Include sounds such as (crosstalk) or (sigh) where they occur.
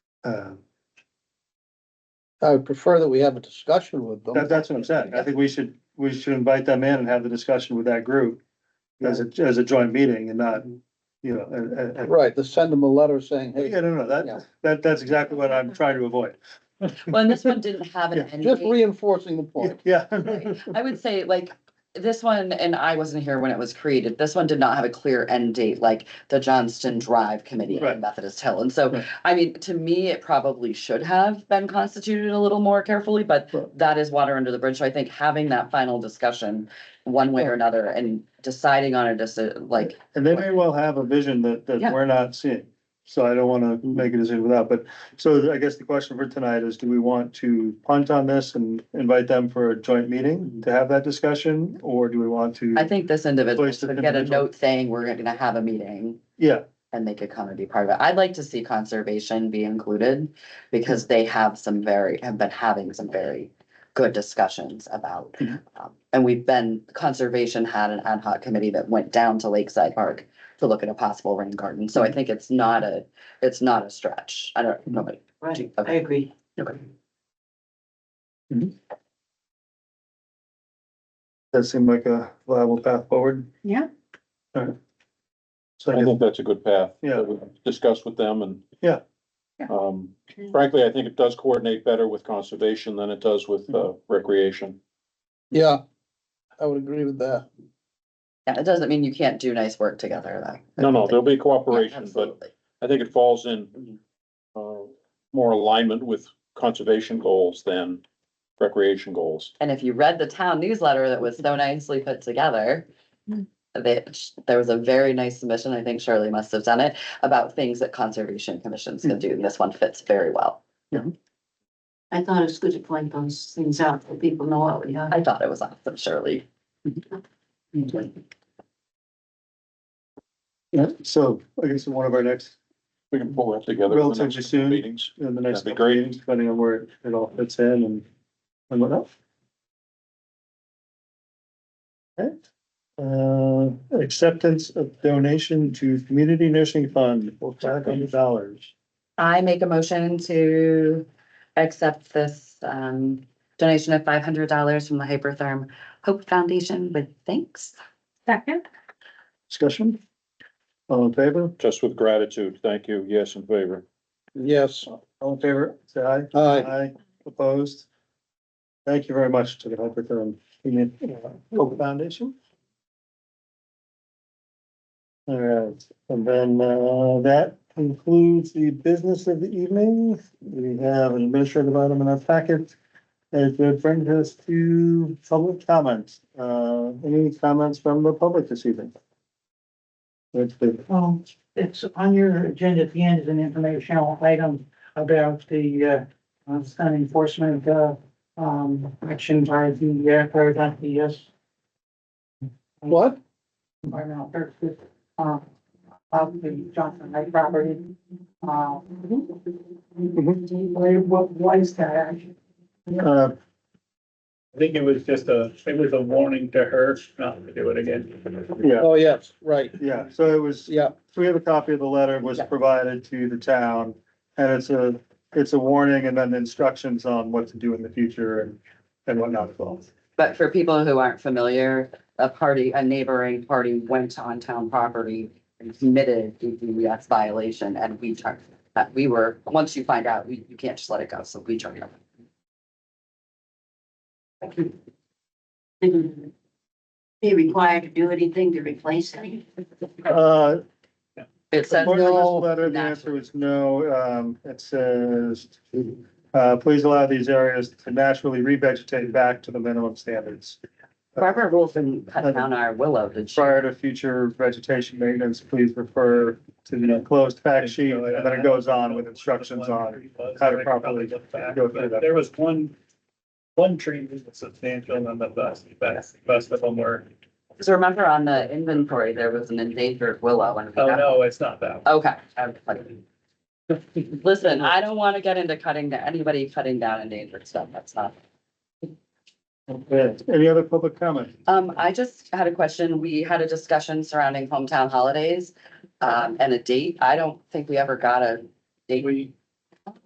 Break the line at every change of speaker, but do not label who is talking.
Uh,
I would prefer that we have a discussion with them.
that, that's what I'm saying. I think we should, we should invite them in and have the discussion with that group as a, as a joint meeting and not, you know, and, and- and-
Right, to send them a letter saying,
yeah,
hey,
no, no,
Yeah.
that, that, that's exactly what I'm trying to avoid.
Well, and this one didn't have an
Yeah,
end
just
date.
reinforcing the point.
Yeah. (laughs)
Right. I would say like, this one, and I wasn't here when it was created, this one did not have a clear end date, like the Johnston Drive Committee
Right.
in Methodist Hill. And so,
Right.
I mean, to me, it probably should have been constituted a little more carefully, but
Right.
that is water under the bridge. So I think having that final discussion one way or another and deciding on a decision, like,
And they may well have a vision that, that
Yeah.
we're not seeing. So I don't wanna make a decision without, but, so I guess the question for tonight is, do we want to punt on this and invite them for a joint meeting to have that discussion? Or do we want to?
I think this individual
Place the
should get a
individual.
note saying we're gonna have a meeting.
Yeah,
and they could come and be part of it. I'd like to see conservation be included because they have some very, have been having some very good discussions about.
Mhm.
um, And we've been, conservation had an ad hoc committee that went down to Lakeside Park to look at a possible rain garden. So I think it's not a, it's not a stretch. I don't, nobody.
Right, I
Okay.
agree.
Okay.
that seemed like a viable path forward.
Yeah.
Alright. So I
I
guess-
think that's a good path.
Yeah.
that we Discuss with them and.
Yeah.
Yeah.
Um, frankly, I think it does coordinate better with conservation than it does with, uh, recreation.
Yeah, I would agree with that.
Yeah, it doesn't mean you can't do nice work together though.
No, no, there'll be
Yeah,
cooperation, but
absolutely.
I think it falls in, uh, more alignment with conservation goals than recreation goals.
And if you read the town newsletter that was so nicely put together, that there was a very nice submission, I think Shirley must have done it, about things that conservation commissions can do. and This one fits very well.
I thought it's good to point those things out so people know what we have.
I thought it was awesome, Shirley.
Yeah, so I guess in one of our next,
We can pull that together. in the
Relatively
next
soon.
Meetings.
in the next
That'd be
couple
great.
meetings, depending on where it all fits in and, and what else. Okay, uh, acceptance of donation to community nursing fund for five hundred dollars.
I make a motion to accept this um donation of five hundred dollars from the Hypertherm Hope Foundation with thanks.
Second.
Discussion? All in favor?
Just with gratitude. Thank you. Yes, in favor.
Yes,
All in favor, say aye.
aye.
Aye, opposed. Thank you very much to the Hyperthurm Community Hope Foundation. All right, and then uh, that concludes the business of the evening. We have an administrative item in our packet. It would bring us to public comments. Uh, Any comments from the public this evening? Let's see.
Um, it's on your agenda at the end is an informational item about the, uh, uh, sun enforcement, uh, um, action by the, uh, by the yes,
What?
environmental services, um, of the Johnson Lake property. Uh,
Mm-hmm.
where- what, what is that action?
Uh,
I think it was just a, it was a warning to her not to do it again.
Yeah,
Oh, yes, right,
yeah, so it was.
yeah.
So we have a copy of the letter was
Yeah.
provided to the town and it's a, it's a warning and then instructions on what to do in the future and, and whatnot as well.
But for people who aren't familiar, a party, a neighboring party went on town property and committed a DES violation and we charged. Uh, we were, once you find out, we, you can't just let it go, so we charge them.
Be required to do anything to replace it?
Uh,
It says
according to this
no.
Letter, the answer was no. Um, it says, uh, please allow these areas to naturally revegetate back to the minimum standards.
Barbara Wilson cut down our willow, did she?
Prior to future vegetation maintenance, please refer to the enclosed fact sheet and then it goes on with instructions on. how to properly go through that.
There was one, one tree that was substantial and then the rest, best, best of them were,
Because remember on the inventory, there was an endangered willow and. we
oh
got-
no, it's not that. one.
Okay. I was like- Listen, I don't want to get into cutting, down anybody cutting down endangered stuff, that's not.
Okay. Any other public comment?
Um, I just had a question. We had a discussion surrounding hometown holidays, um, and a date. I don't think we ever got a date.
We,